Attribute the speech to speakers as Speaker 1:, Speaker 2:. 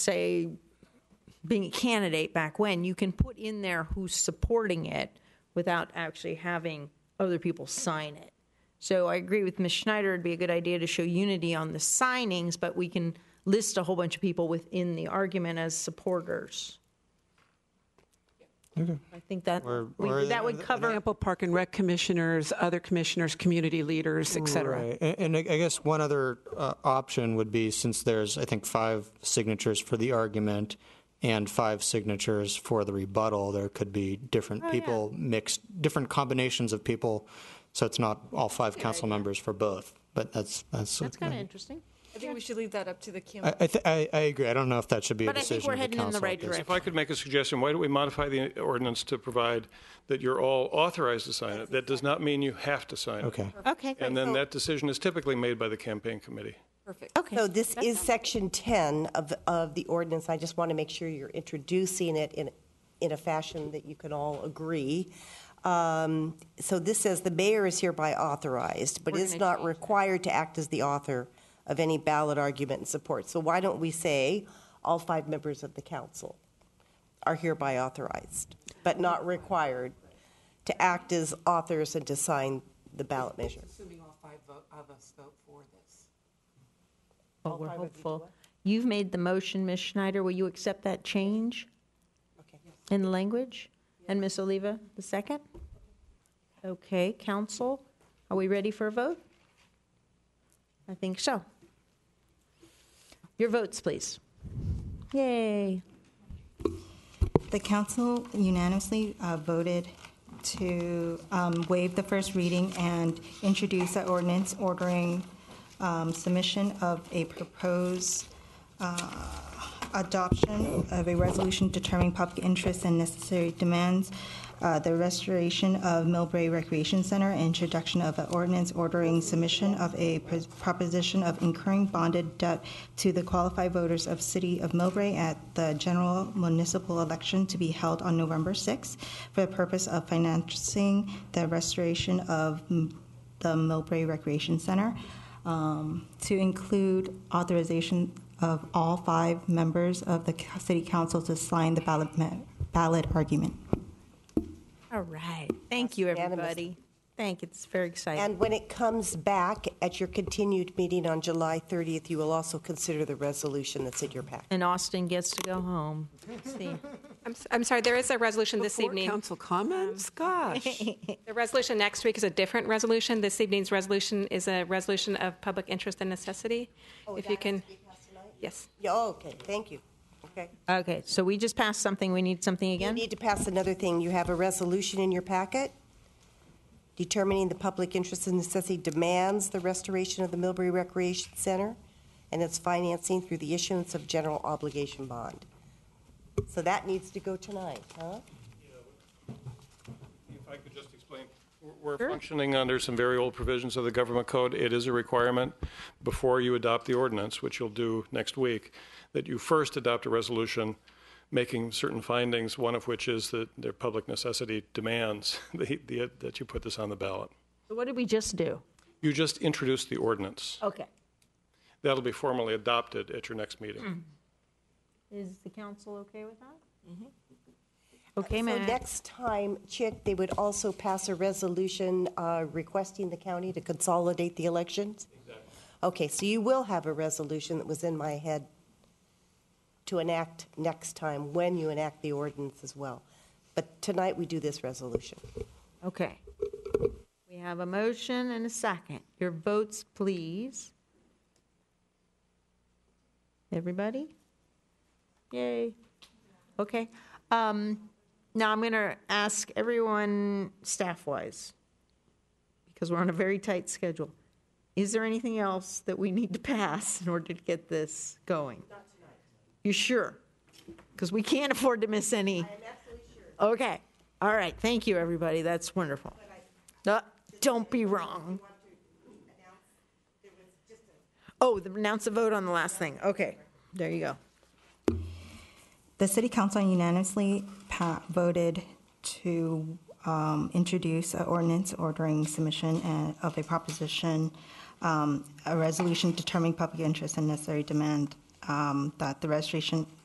Speaker 1: say, being a candidate back when, you can put in there who's supporting it without actually having other people sign it. So I agree with Ms. Schneider, it'd be a good idea to show unity on the signings, but we can list a whole bunch of people within the argument as supporters. I think that,
Speaker 2: Or-
Speaker 1: we-
Speaker 2: or-
Speaker 1: that would cover,
Speaker 3: example, park and rec commissioners, other commissioners, community leaders, et cetera.
Speaker 2: Right. A- And I I guess one other uh, option would be, since there's, I think, five signatures for the argument and five signatures for the rebuttal, there could be
Speaker 1: Oh,
Speaker 2: different people mixed, different combinations of people, so it's not all five council members for both, but that's, that's.
Speaker 1: that's kind of interesting.
Speaker 4: I think we should leave that up to the
Speaker 2: I,
Speaker 4: candidate.
Speaker 2: I thi- I, I agree. I don't know if that should be a
Speaker 1: But I think
Speaker 2: decision
Speaker 1: we're
Speaker 2: of the
Speaker 1: heading in the
Speaker 2: council at
Speaker 1: right
Speaker 2: this
Speaker 1: direction.
Speaker 5: If I could make a suggestion, why don't we modify the ordinance to provide that you're all authorized to sign it? That does not mean you have to sign it.
Speaker 2: Okay.
Speaker 1: Okay,
Speaker 5: And then that decision is typically made by the campaign committee.
Speaker 4: Perfect.
Speaker 1: okay.
Speaker 6: So this is section 10 of, of the ordinance. I just want to make sure you're introducing it in, in a fashion that you can all agree. Um, So this says the mayor is hereby authorized, but is not required to act as the author of any ballot argument and support. So why don't we say all five members of the council are hereby authorized, but not required to act as authors and to sign the ballot measure?
Speaker 7: Assuming all five vote- of us vote for this.
Speaker 1: Well, we're hopeful. You've made the motion, Ms. Schneider. Will you accept that change in the language? And Ms. Oliva, the second? Okay, council, are we ready for a vote? I think so. Your votes, please. Yay.
Speaker 8: The council unanimously uh, voted to um, waive the first reading and introduce an ordinance ordering um, submission of a proposed uh, adoption of a resolution determining public interests and necessary demands, uh, the restoration of Millbrae Recreation Center, introduction of an ordinance ordering submission of a pres- proposition of incurring bonded debt to the qualified voters of City of Millbrae at the general municipal election to be held on November 6th for the purpose of financing the restoration of mm, the Millbrae Recreation Center, um, to include authorization of all five members of the c- city council to sign the ballot, ma- ballot argument.
Speaker 1: All right. Thank you,
Speaker 6: Unanimous.
Speaker 1: everybody. Thank you. It's very exciting.
Speaker 6: And when it comes back at your continued meeting on July 30th, you will also consider the resolution that's in your packet.
Speaker 1: And Austin gets to go home. See.
Speaker 9: I'm s- I'm sorry, there is a resolution this
Speaker 3: Before
Speaker 9: evening.
Speaker 3: council comments, gosh.
Speaker 9: The resolution next week is a different resolution. This evening's resolution is a resolution of public interest and necessity.
Speaker 3: Oh,
Speaker 9: If you can, yes.
Speaker 6: Yeah, oh, okay, thank you. Okay.
Speaker 1: Okay, so we just passed something. We need something
Speaker 6: You
Speaker 1: again?
Speaker 6: need to pass another thing. You have a resolution in your packet determining the public interest and necessity demands the restoration of the Millbury Recreation Center and its financing through the issuance of general obligation bond. So that needs to go tonight, huh?
Speaker 5: If I could just explain, we're- we're functioning under some very old provisions of the government code. It is a requirement before you adopt the ordinance, which you'll do next week, that you first adopt a resolution making certain findings, one of which is that their public necessity demands the- the- that you put this on the ballot.
Speaker 1: What did we just do?
Speaker 5: You just introduced the ordinance.
Speaker 1: Okay.
Speaker 5: That'll be formally adopted at your next meeting.
Speaker 1: Is the council okay with that? Mm-hmm. Okay,
Speaker 6: So
Speaker 1: ma'am.
Speaker 6: next time, Chick, they would also pass a resolution uh, requesting the county to consolidate the elections? Okay, so you will have a resolution that was in my head to enact next time, when you enact the ordinance as well. But tonight, we do this resolution.
Speaker 1: Okay. We have a motion and a second. Your votes, please. Everybody? Yay. Okay. Um, Now I'm going to ask everyone, staff-wise, because we're on a very tight schedule. Is there anything else that we need to pass in order to get this going? Not tonight. You sure? Because we can't afford to miss any. I am absolutely sure. Okay. All right. Thank you, everybody. That's wonderful. Uh, Don't be wrong. Oh, the- announce a vote on the last thing. Okay. There you go.
Speaker 8: The city council unanimously pa- voted to um, introduce an ordinance ordering submission uh, and- of a proposition, um, a resolution determining public interest and necessary demand um, that the registration